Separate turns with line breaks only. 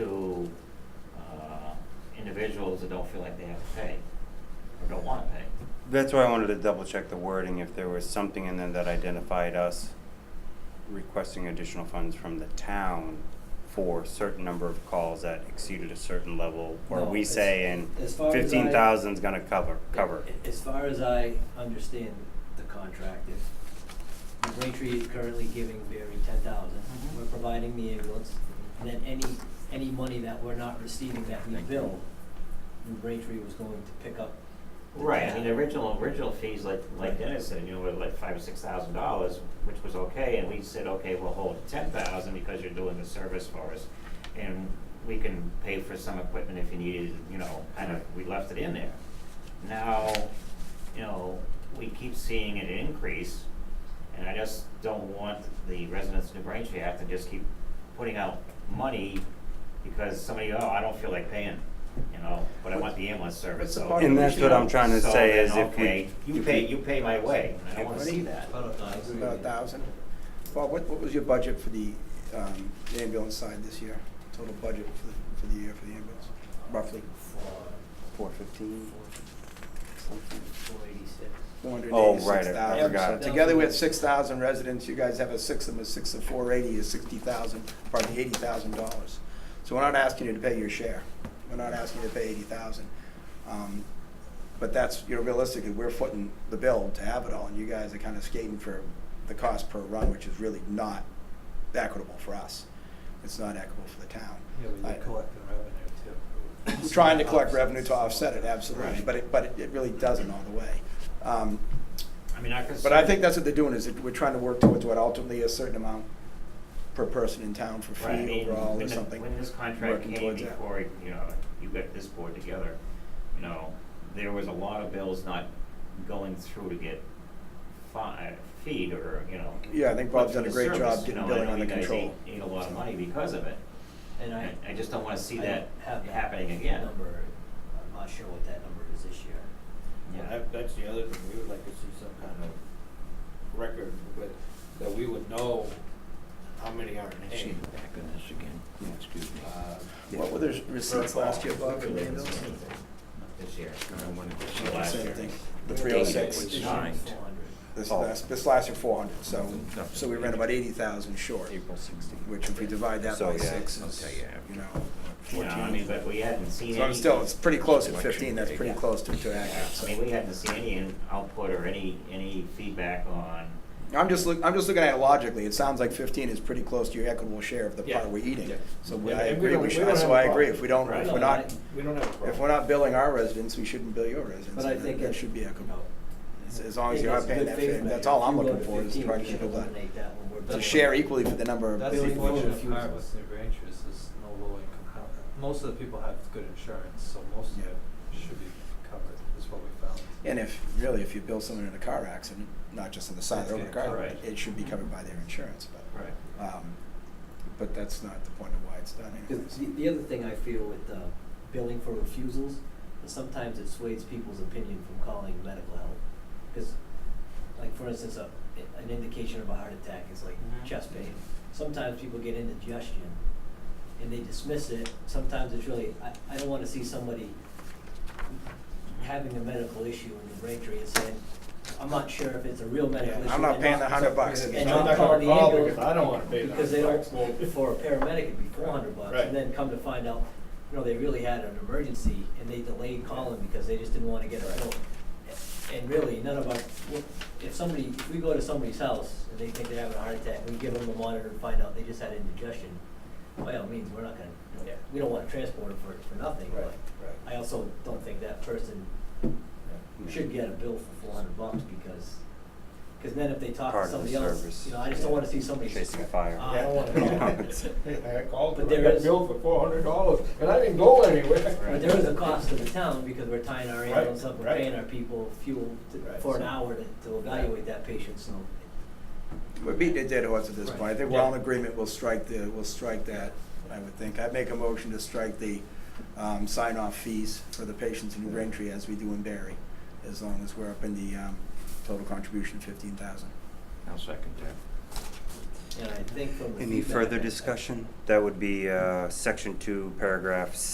uh, individuals that don't feel like they have to pay or don't want to pay.
That's why I wanted to double check the wording, if there was something in there that identified us requesting additional funds from the town for a certain number of calls that exceeded a certain level, or
No,
we
as-
say in
as far as I-
fifteen thousand's gonna cover, cover.
A- As far as I understand the contract, if New Braintree is currently giving Barry ten thousand,
Mhm.
we're providing the ambulance, and then any, any money that we're not receiving that we
Thank you.
bill, New Braintree was going to pick up. the
Right, I
tab.
mean, the original, original fees, like, like
Right.
Dennis said, you know, were like five or six thousand dollars, which was okay, and we said, okay, we'll hold ten thousand because you're doing the service for us. And we can pay for some equipment if you needed, you know, kind of, we left it in there. Now, you know, we keep seeing an increase, and I just don't want the residents of New Braintree to have to just keep putting out money because somebody, oh, I don't feel like paying, you know, but I want the ambulance service,
What's the
so.
part of And
that's what I'm trying to
So
say
then,
is if we-
okay, You
if
pay,
we-
you pay my way, and I don't
If
wanna
we-
see that.
About a thousand.
About a thousand. Bob, what, what was your budget for the, um, ambulance side this year? Total budget for the, for the year for the ambulance, roughly?
Four fifteen?
Four eighty-six.
Four hundred
Oh, right,
eighty-six
I
thousand.
forgot.
Together with six thousand residents, you guys have a six of a six of four eighty is sixty thousand, probably eighty thousand dollars. So we're not asking you to pay your share. We're not asking you to pay eighty thousand. Um, but that's, you know, realistically, we're footing the bill to have it all, and you guys are kind of skating for the cost per run, which is really not equitable for us. It's not equitable for the town.
Yeah, but
I-
you're collecting revenue too.
We're trying to collect revenue to offset it, absolutely,
Right.
but it, but it- it really doesn't all the way. Um,
I mean, I could.
But I think that's what they're doing, is that we're trying to work towards what ultimately a certain amount per person in town for
Right, I
fee
mean,
overall
when
or
the-
something.
When this contract
working
came
towards that.
before, you know, you got this board together, you know, there was a lot of bills not going through to get fi- feed or, you know.
Yeah, I think Bob's done a
put
great
through the
job
service, you
getting
know,
billing
I know
under
you guys
control.
ate- Ate a lot of money because of it.
And I.
I, I just don't wanna see
I
that
don't have that
happening again.
Number, I'm not sure what that number is this year.
Yeah.
That, that's the other thing, we would like to see some kind of record, but, that we would know how many aren't named.
back on this again, excuse me.
Uh,
What were the receipts last year, Bob, for the ambulance?
This year.
Same
Last year.
thing. The three oh six,
Which- Nine.
Four hundred.
this
Oh.
last, this last year four hundred, so, so we ran about eighty thousand short,
April sixteen.
which if we divide that
So,
by
yeah,
six
I'll
is,
tell you after.
you know,
You know, I mean,
fourteen.
but we hadn't seen
So I'm
any.
still, it's pretty close at fifteen,
Election
that's
day.
pretty close to, to
Yeah,
accurate,
I
so.
mean, we hadn't seen any in- output or any, any feedback on,
I'm just look, I'm just looking at it logically. It sounds like fifteen is pretty close to your equitable share of the
Yeah.
part we're eating.
Yeah.
So
Yeah,
I
and we
agree.
don't-
We
we
should,
don't
that's
have
why
a
I agree. If
problem.
we don't,
Right.
if we're
No,
not,
I-
Uh, We don't have a problem.
if we're not billing our residents, we shouldn't bill your residents.
But I think
that
it-
should be
you know,
equitable. As- as long as
I think
you're not
it's a
paying
good
that
faith
fee,
measure.
that's all
If
I'm
you go
looking
to
for is
15,
trying
we
to
should
get that-
eliminate that when we're done
To
with
share
it.
equally for the number of
That's the
billing people.
fortunate
refusal.
part with New Braintree's is no low income housing. Most of the people have good insurance, so most of
Yeah.
it should be covered, is what we found.
And if, really, if you bill someone in a car accident, not just on the side of the road,
It's
in a car,
covered.
accident, it should be covered by their insurance, but,
right,
um, but that's not the point of why it's done anyways.
Because the, the other thing I feel with, uh, billing for refusals, is sometimes it sways people's opinion from calling medical help. Cause, like, for instance, a, an indication of a heart attack is like
Mhm.
chest pain. Sometimes people get indigestion, and they dismiss it, sometimes it's really, I, I don't wanna see somebody having a medical issue in the Braintree and saying, I'm not sure if it's a real
Yeah,
medical issue.
I'm
or
not paying the
not."
hundred bucks.
And
I'm
not
not
call
gonna
the
call
ambulance.
because I don't wanna pay that.
Because they don't, for a paramedic, it'd be four hundred bucks,
Right.
and then come to find out, you know, they really had an emergency, and they delayed calling because they just didn't wanna get a bill. And really, none of us, if somebody, if we go to somebody's house and they think they're having a heart attack, we give them a monitor and find out they just had indigestion, by all means, we're not gonna, you know, we don't wanna transport them for, for nothing,
Right,
but
right.
I also don't think that person should get a bill for four hundred bucks, because, cause then if they talk
Part
to
of the
somebody else,
service,
you know, I just don't
yeah.
wanna see somebody.
Chasing fire.
Uh,
I don't wanna Hey, I called,
But
I
there
got
is-
billed for four hundred dollars, and I didn't go anywhere.
But there is a cost to the town because we're tying our
Right,
ambulance up, we're
right.
paying our people fuel to-
Right,
for an
so-
hour to, to evaluate that patient, so.
We're beating a dead horse at this
Right.
point. I think we're all
Yeah.
in agreement, we'll strike the, we'll strike that, I would think. I'd make a motion to strike the um, sign-off fees for the patients in New Braintree as we do in Barry, as long as we're up in the um, total contribution of fifteen thousand.
I'll second that.
And I think from the
Any
feedback
further
I- I-
discussion? That would be, uh, section two, paragraph